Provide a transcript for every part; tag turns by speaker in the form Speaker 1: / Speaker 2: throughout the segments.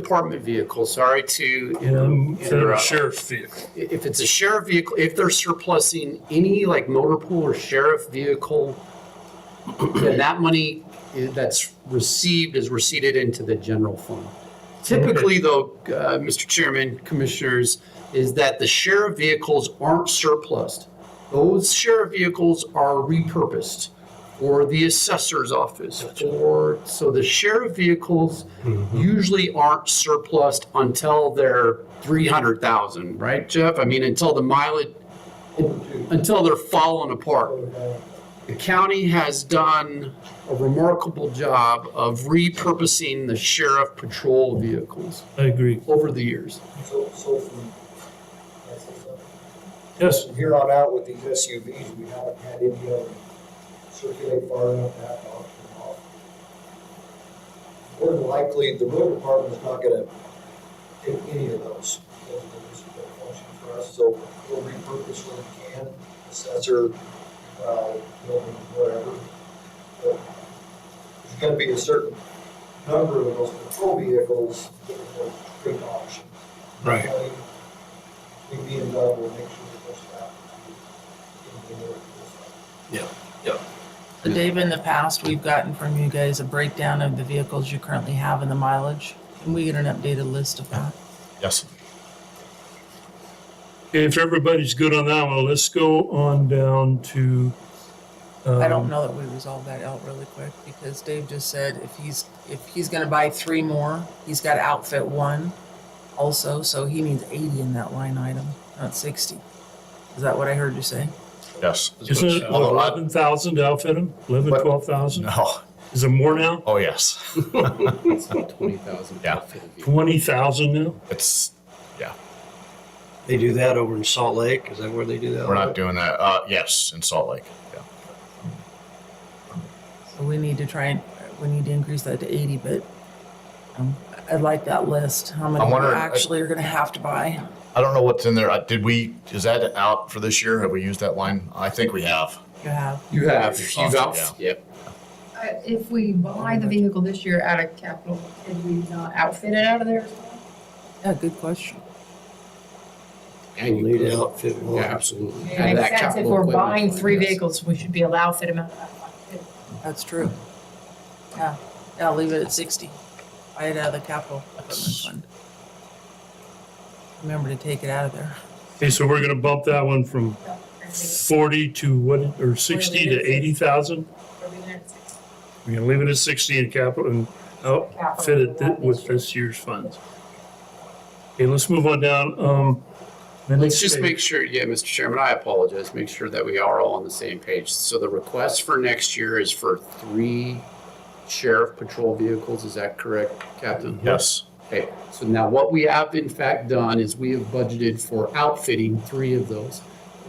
Speaker 1: department vehicle, sorry to
Speaker 2: Um,
Speaker 1: um,
Speaker 2: For a
Speaker 1: interrupt.
Speaker 2: sheriff's vehicle.
Speaker 1: If it's a sheriff vehicle, if they're surplusing any like motor pool or sheriff vehicle, then that money i- that's received is receipted into the general fund. Typically, though, uh, Mr. Chairman, Commissioners, is that the sheriff vehicles aren't surplused. Those sheriff vehicles are repurposed for the assessor's office, or, so the sheriff vehicles usually aren't surplused until they're 300,000, right, Jeff? I mean, until the mileage, until they're falling apart. The county has done a remarkable job of repurposing the sheriff patrol vehicles
Speaker 2: I agree.
Speaker 1: over the years.
Speaker 3: So, so from,
Speaker 2: Yes,
Speaker 3: from here on out with these SUVs, we haven't had any of them circulate far enough to have to auction them off. More than likely, the road department's not gonna take any of those. Those are the ones that don't function for us, so we'll repurpose where we can, assessor, uh, building, whatever. But There's gonna be a certain number of those patrol vehicles that will create auction.
Speaker 2: right.
Speaker 3: We be involved, we'll make sure that those happen. And we know what it
Speaker 4: So Dave, in the past, we've gotten from you guys a breakdown of the vehicles you currently have and the mileage. Can we get an updated list of that?
Speaker 5: Yes.
Speaker 2: Okay, If everybody's good on that one, let's go on down to. um,
Speaker 4: I don't know that we resolve that out really quick because Dave just said if he's, if he's gonna buy three more, he's gotta outfit one also, so he needs eighty in that line item, not sixty. Is that what I heard you say?
Speaker 5: Yes.
Speaker 2: Isn't it
Speaker 5: Although I-
Speaker 2: eleven thousand to outfit them? Eleven,
Speaker 5: What?
Speaker 2: twelve thousand?
Speaker 5: No.
Speaker 2: Is it more now?
Speaker 5: Oh, yes.
Speaker 6: It's not twenty thousand.
Speaker 5: Yeah.
Speaker 2: Twenty thousand now?
Speaker 5: It's, yeah,
Speaker 7: They do that over in Salt Lake. Is that where they do that?
Speaker 5: we're not doing that. Uh, yes, in Salt Lake. Yeah.
Speaker 4: So we need to try and, we need to increase that to eighty, but um, I'd like that list, how many
Speaker 5: I'm
Speaker 4: we
Speaker 5: wondering-
Speaker 4: actually are gonna have to buy.
Speaker 5: I don't know what's in there. Uh, Did we, is that out for this year? Have we used that line? I think we have.
Speaker 4: You have,
Speaker 1: You have, you've out,
Speaker 5: Yeah.
Speaker 1: yep.
Speaker 8: Uh, If we buy the vehicle this year out of capital, could we not outfit it out of there?
Speaker 4: yeah, good question.
Speaker 1: And you
Speaker 7: Lead
Speaker 1: could-
Speaker 7: outfit. Well,
Speaker 1: Yeah.
Speaker 7: absolutely.
Speaker 8: It
Speaker 1: Out of that
Speaker 8: makes sense, if
Speaker 1: capital
Speaker 8: we're
Speaker 1: equipment
Speaker 8: buying
Speaker 1: fund,
Speaker 8: three
Speaker 1: yes.
Speaker 8: vehicles, we should be allowed to fit them out of that fund.
Speaker 4: That's true. Yeah, yeah, leave it at sixty. Buy it out of the capital equipment fund. Remember to take it out of there.
Speaker 2: Okay, so we're gonna bump that one from forty to what, or sixty to eighty thousand? We're gonna leave it at sixty in capital and outfit it thi- with this year's funds. Okay, let's move on down, um. the
Speaker 1: Let's
Speaker 2: next
Speaker 1: just
Speaker 2: page.
Speaker 1: make sure, yeah, Mr. Chairman, I apologize, make sure that we are all on the same page. So the request for next year is for three sheriff patrol vehicles, is that correct, Captain?
Speaker 5: Yes.
Speaker 1: Okay, so now what we have in fact done is we have budgeted for outfitting three of those.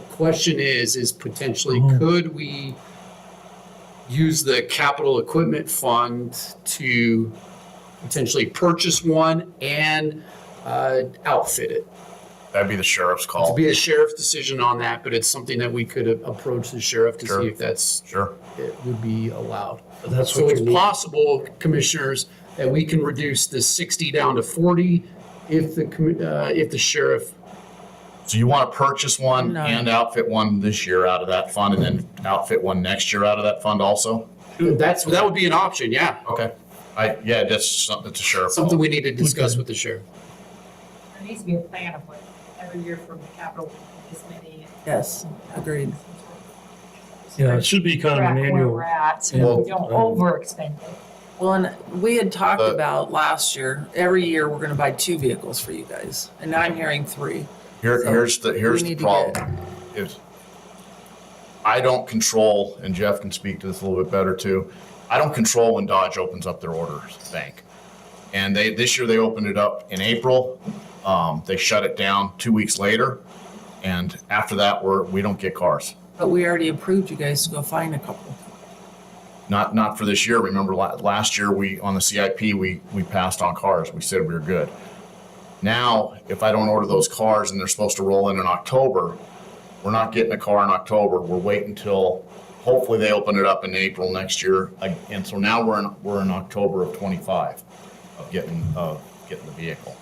Speaker 1: The Question is, is potentially
Speaker 2: Mhm.
Speaker 1: could we use the capital equipment fund to potentially purchase one and uh, outfit it?
Speaker 5: That'd be the sheriff's
Speaker 1: To
Speaker 5: call.
Speaker 1: be a sheriff's decision on that, but it's something that we could a- approach the sheriff to
Speaker 5: Sure.
Speaker 1: see if that's,
Speaker 5: Sure.
Speaker 1: it would be allowed.
Speaker 7: But that's
Speaker 1: So
Speaker 7: what
Speaker 1: it's
Speaker 7: you need.
Speaker 1: possible, commissioners, that we can reduce the 60 down to 40 if the, commi- uh, if the sheriff,
Speaker 5: So you want to purchase one
Speaker 4: No.
Speaker 5: and outfit one this year out of that fund and then outfit one next year out of that fund also?
Speaker 1: that's, that would be an option, yeah.
Speaker 5: Okay. I, yeah, that's something, that's a sheriff. call.
Speaker 1: Something we need to discuss with the sheriff.
Speaker 8: There needs to be a plan of what, every year from the capital, this many.
Speaker 4: Yes, agreed.
Speaker 2: Yeah, it should be kind of an annual. um,
Speaker 8: at,
Speaker 2: so that
Speaker 5: we
Speaker 2: don't
Speaker 8: overexpend it.
Speaker 4: Well, and we had talked
Speaker 5: Uh,
Speaker 4: about last year, every year we're gonna buy two vehicles for you guys, and now I'm hearing three.
Speaker 5: Here,
Speaker 4: So,
Speaker 5: here's the, here's the
Speaker 4: need to
Speaker 5: problem. Is I don't control, and Jeff can speak to this a little bit better too. I don't control when Dodge opens up their orders bank. And they, this year they opened it up in April. Um, they shut it down two weeks later. And after that, we're, we don't get cars.
Speaker 4: But we already approved you guys to go find a couple.
Speaker 5: Not, not for this year. Remember la- last year, we, on the CIP, we, we passed on cars. We said we were good. Now, if I don't order those cars and they're supposed to roll in in October, we're not getting a car in October. We're waiting until, hopefully they open it up in April next year. Like, And so now we're in, we're in October of twenty-five of getting, uh, getting the vehicle.